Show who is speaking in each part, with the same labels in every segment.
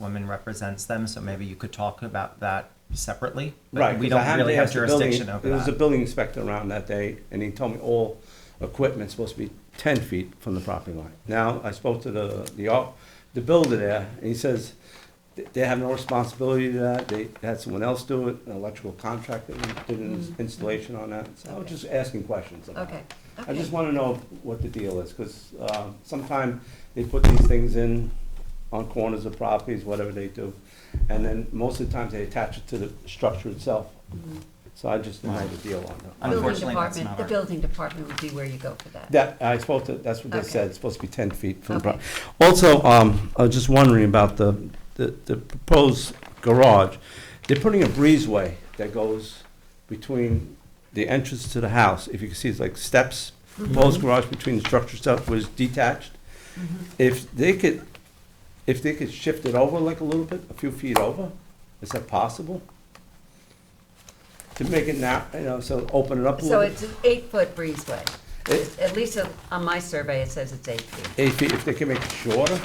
Speaker 1: woman represents them, so maybe you could talk about that separately. but
Speaker 2: Right,
Speaker 1: We
Speaker 2: 'cause I
Speaker 1: don't
Speaker 2: had
Speaker 1: really
Speaker 2: to
Speaker 1: have
Speaker 2: ask the building-
Speaker 1: jurisdiction over
Speaker 2: There was a
Speaker 1: that.
Speaker 2: building inspector around that day, and he told me all equipment's supposed to be ten feet from the property line. Now, I spoke to the, the, au- the builder there, and he says th- they have no responsibility to that, they had someone else do it, an electrical contractor did an ins- installation on that, so I was
Speaker 3: Mm-hmm. Okay.
Speaker 2: just asking questions about it.
Speaker 3: Okay,
Speaker 2: I just
Speaker 3: okay.
Speaker 2: wanna know what the deal is, cause, um, sometime they put these things in on corners of properties, whatever they do, and then most of the times they attach it to the structure itself.
Speaker 3: Mhm.
Speaker 2: So I just don't know the deal on that.
Speaker 3: Building
Speaker 1: Unfortunately, that's
Speaker 3: department,
Speaker 1: not
Speaker 3: the
Speaker 1: our-
Speaker 3: building department would be where you go for that.
Speaker 2: That, I spoke to, that's what they
Speaker 3: Okay.
Speaker 2: said, it's supposed to be ten feet from the
Speaker 3: Okay.
Speaker 2: property. Also, um, I was just wondering about the, the, the proposed garage. They're putting a breezeway that goes between the entrance to the house, if you can see, it's like steps,
Speaker 3: Mm-hmm.
Speaker 2: proposed garage between the structure stuff was detached.
Speaker 3: Mm-hmm.
Speaker 2: If they could, if they could shift it over like a little bit, a few feet over, is that possible? To make it now, you know, so open it up a
Speaker 3: So
Speaker 2: little bit?
Speaker 3: it's an eight-foot breezeway.
Speaker 2: It-
Speaker 3: At least on- on my survey, it says it's eight feet.
Speaker 2: Eight feet, if they can make it shorter,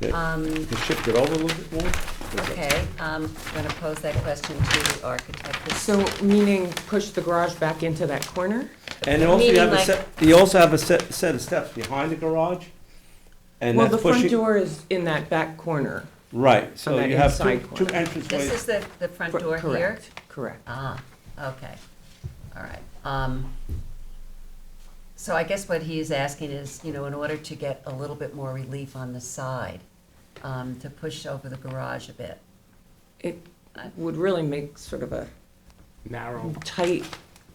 Speaker 2: they
Speaker 3: Um,
Speaker 2: can shift it over a little bit more? is that-
Speaker 3: Okay, um, I'm going to pose that question to the architect.
Speaker 4: So meaning push the garage back into that corner?
Speaker 2: And they also you
Speaker 3: Meaning
Speaker 2: have a
Speaker 3: like-
Speaker 2: set, you also have a set, set of steps behind the garage, and
Speaker 4: Well,
Speaker 2: that's
Speaker 4: the front
Speaker 2: pushing.
Speaker 4: door is in that back corner.
Speaker 2: Right, so
Speaker 4: that
Speaker 2: you have two,
Speaker 4: inside
Speaker 2: two
Speaker 4: corner.
Speaker 3: This is
Speaker 2: entranceways.
Speaker 3: the, the front
Speaker 4: Cor-
Speaker 3: door here?
Speaker 4: Correct, correct.
Speaker 3: Ah, okay, all right. Um, So I guess what he is asking is, you know, in order to get a little bit more relief on the side, um, to push over the garage a bit.
Speaker 4: It would really make sort of a
Speaker 5: narrow.
Speaker 4: tight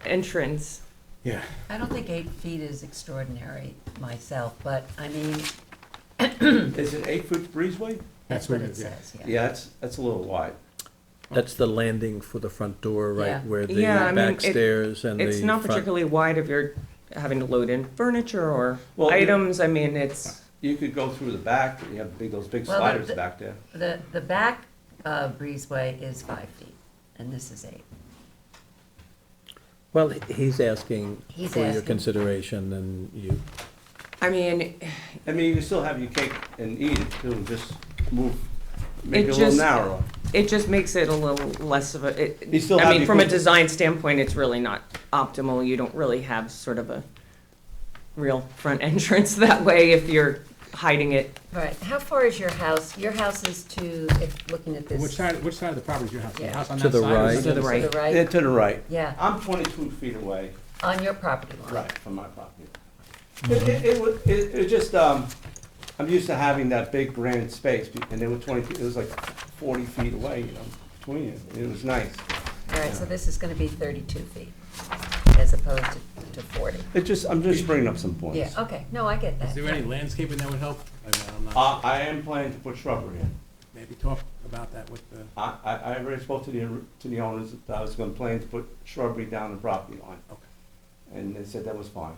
Speaker 4: entrance.
Speaker 5: Yeah.
Speaker 3: I don't think eight feet is extraordinary myself, but I mean,
Speaker 2: Is it eight foot breezeway?
Speaker 3: that's
Speaker 5: That's
Speaker 3: what
Speaker 5: what
Speaker 3: it
Speaker 5: it- yeah.
Speaker 3: says, yeah.
Speaker 2: Yeah, that's, that's a little wide.
Speaker 6: That's the landing for the front door,
Speaker 3: Yeah.
Speaker 6: right, where the
Speaker 4: Yeah, I mean,
Speaker 6: back
Speaker 4: it-
Speaker 6: stairs and the front.
Speaker 4: It's not particularly wide if you're having to load in furniture or
Speaker 2: Well, the-
Speaker 4: items. I mean, it's,
Speaker 2: You could go through the back, you have big, those big
Speaker 3: Well, the-
Speaker 2: sliders
Speaker 3: the-
Speaker 2: back there.
Speaker 3: The, the back uh, breezeway is five feet, and this is eight.
Speaker 6: Well, he- he's asking
Speaker 3: He's
Speaker 6: for your
Speaker 3: asking.
Speaker 6: consideration and you,
Speaker 4: I mean,
Speaker 2: I mean, you can still have your cake and eat it too, just move, make
Speaker 4: It
Speaker 2: it a little
Speaker 4: just-
Speaker 2: narrower.
Speaker 4: it just makes it a little less of a,
Speaker 2: You
Speaker 4: it,
Speaker 2: still
Speaker 4: I
Speaker 2: have
Speaker 4: mean,
Speaker 2: the
Speaker 4: from a
Speaker 2: equivalent-
Speaker 4: design standpoint, it's really not optimal. You don't really have sort of a real front entrance that way if you're hiding it.
Speaker 3: All right, how far is your house? Your house is to, if, looking at this.
Speaker 5: Which side, which side of the property is your house? The
Speaker 3: Yeah.
Speaker 5: house on
Speaker 6: To
Speaker 5: that
Speaker 6: the
Speaker 5: side or
Speaker 6: right.
Speaker 5: on
Speaker 4: To the
Speaker 5: other
Speaker 4: right.
Speaker 3: To
Speaker 5: side?
Speaker 3: the
Speaker 2: Yeah,
Speaker 3: right,
Speaker 2: to the right.
Speaker 3: yeah,
Speaker 2: I'm twenty-two feet away,
Speaker 3: on your property line.
Speaker 2: right, from my property. It, it, it would, it, it just, um, I'm used to having that big grand space, be- and they were twenty, feet- it was like forty feet away, you know, between it, it was nice.
Speaker 3: All right, so this is gonna be thirty-two feet as opposed to, to forty.
Speaker 2: It just, I'm just bringing up some points.
Speaker 3: Yeah, okay, no, I get
Speaker 5: Is
Speaker 3: that.
Speaker 5: there any landscaping that would help? I am not,
Speaker 2: I, I am planning to put shrubbery in.
Speaker 5: maybe talk about that with the,
Speaker 2: I, I, I already spoke to the, to the owners, that I was gonna plan to put shrubbery down the property line.
Speaker 5: Okay.
Speaker 2: And they said that was fine.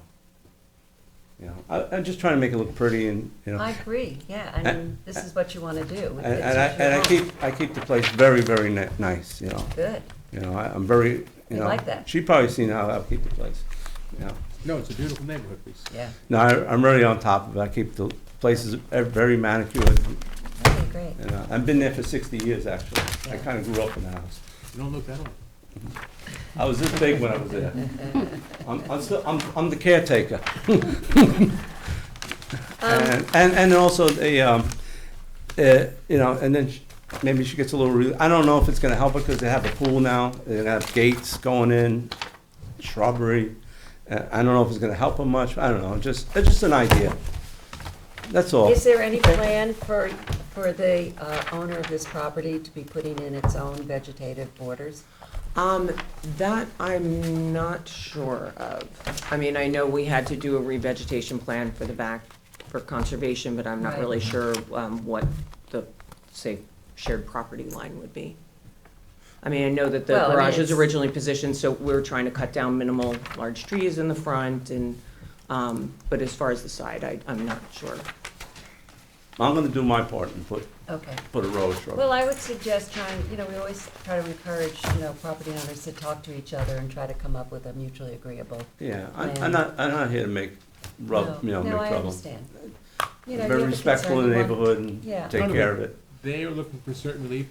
Speaker 2: You know, I, I'm just trying to make it look pretty and, you know.
Speaker 3: I agree, yeah, I mean, this is what you wanna do.
Speaker 2: And, and I, and I keep, I keep the place very, very ni- nice, you know,
Speaker 3: Good,
Speaker 2: you know, I, I'm very, you
Speaker 3: We
Speaker 2: know.
Speaker 3: like that.
Speaker 2: She probably seen how I keep the place, you know.
Speaker 5: no, it's a beautiful neighborhood, we
Speaker 3: yeah,
Speaker 2: No, I, I'm really on top of it, I keep the places e-, very manicured,
Speaker 3: okay, great.
Speaker 2: you know, I've been there for sixty years, actually. I kinda grew up in the house.
Speaker 5: you don't look that old.
Speaker 2: I was this big when I was there. I'm, I'm still, I'm, I'm the caretaker.
Speaker 3: Um,
Speaker 2: And, and and also the, um, uh, you know, and then sh- maybe she gets a little, re- I don't know if it's gonna help her because they have a pool now, they have gates going in, shrubbery. Uh, I don't know if it's gonna help her much, I don't know, just, it's just an idea. That's all.
Speaker 3: Is there any plan for, for the uh, owner of this property to be putting in its own vegetative borders?
Speaker 4: Um, that I'm not sure of. I mean, I know we had to do a revegetation plan for the back for conservation, but I'm not
Speaker 3: Right.
Speaker 4: really sure, um, what the, say, shared property line would be. I mean, I know that the
Speaker 3: Well, I mean,
Speaker 4: garage was
Speaker 3: it's-
Speaker 4: originally positioned, so we were trying to cut down minimal large trees in the front and, um, but as far as the side, I, I'm not sure.
Speaker 2: I'm gonna do my part and put,
Speaker 3: Okay.
Speaker 2: put a row of shrubbery.
Speaker 3: Well, I would suggest trying, you know, we always try to encourage, you know, property owners to talk to each other and try to come up with a mutually agreeable.
Speaker 2: Yeah, I-
Speaker 3: Yeah.
Speaker 2: I'm not, I'm not here to make, rub,
Speaker 3: No,
Speaker 2: you know, make
Speaker 3: No, I
Speaker 2: trouble.
Speaker 3: understand. You know, you
Speaker 2: Very
Speaker 3: have a
Speaker 2: respectful
Speaker 3: concern,
Speaker 2: in the
Speaker 3: you want-
Speaker 2: neighborhood and
Speaker 3: Yeah.
Speaker 2: take care of it.
Speaker 5: they are looking for certain relief